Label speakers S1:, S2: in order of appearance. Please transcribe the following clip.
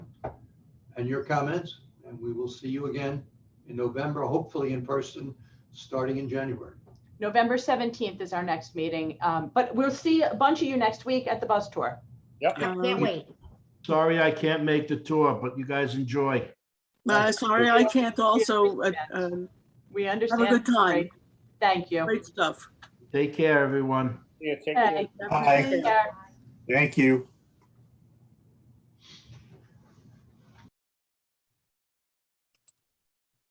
S1: and your comments. And we will see you again in November, hopefully in person, starting in January.
S2: November 17th is our next meeting, um, but we'll see a bunch of you next week at the bus tour.
S3: Can't
S4: Um,
S3: wait.
S5: Sorry, I can't make the tour, but you guys enjoy.
S4: uh, Sorry, I can't also, uh, um,
S2: We
S4: have a good
S2: understand.
S4: time.
S2: Thank you.
S4: Great stuff.
S5: Take care, everyone.
S3: Bye.
S2: Take care.
S6: Thank you.